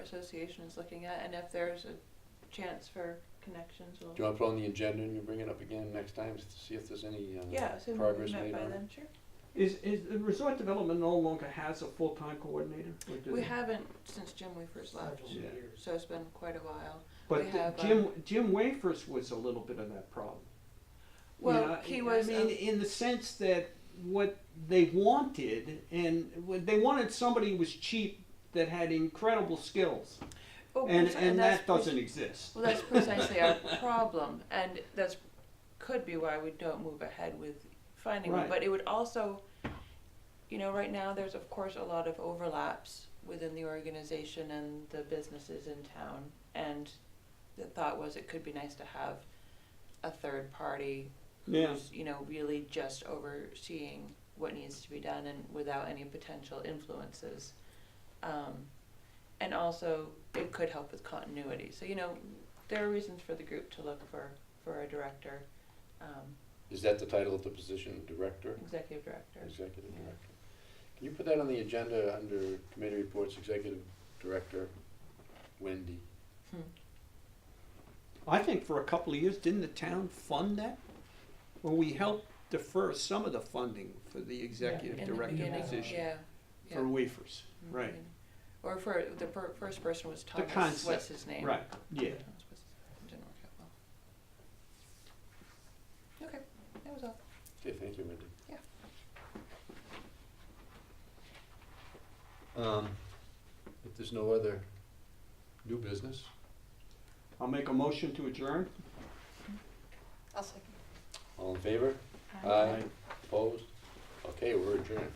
association is looking at, and if there's a chance for connections, we'll. Do you want to put on the agenda and you bring it up again next time to see if there's any uh, Yeah, so we progress met made by on it? then, sure. Is, is the resort development no longer has a full-time coordinator? or do We they? haven't since Jim Weaver's left, Yeah. so it's been quite a while. we But the- have, Jim, Jim Wafers was a little bit of that problem. You know, Well, he was, I um, mean, in the sense that what they wanted, and what they wanted somebody who was cheap that had incredible skills, oh, and, preci- and that's that preci- doesn't exist. Well, that's precisely our problem, and that's, could be why we don't move ahead with finding one, Right. but it would also, you know, right now, there's of course a lot of overlaps within the organization and the businesses in town, and the thought was it could be nice to have a third party Yeah. who's, you know, really just overseeing what needs to be done and without any potential influences. Um, and also, it could help with continuity. So, you know, there are reasons for the group to look for, for a director, um, Is that the title of the position, director, executive director. executive Yeah. director? Can you put that on the agenda under committee reports, executive director, Wendy? I think for a couple of years, didn't the town fund that? Well, we helped defer some of the funding for the executive In the director beginning, position Yeah. yeah. for Wafers, in the right, beginning. Or for, the per- first person was Thomas, concept, what's his name? right, yeah. Thomas was- Didn't work out well. Okay, that was all. Okay, thank you, Wendy. Yeah. Um, if there's no other new business, I'll make a motion to adjourn. I'll second. all in favor? Opposed? Okay, we're adjourned.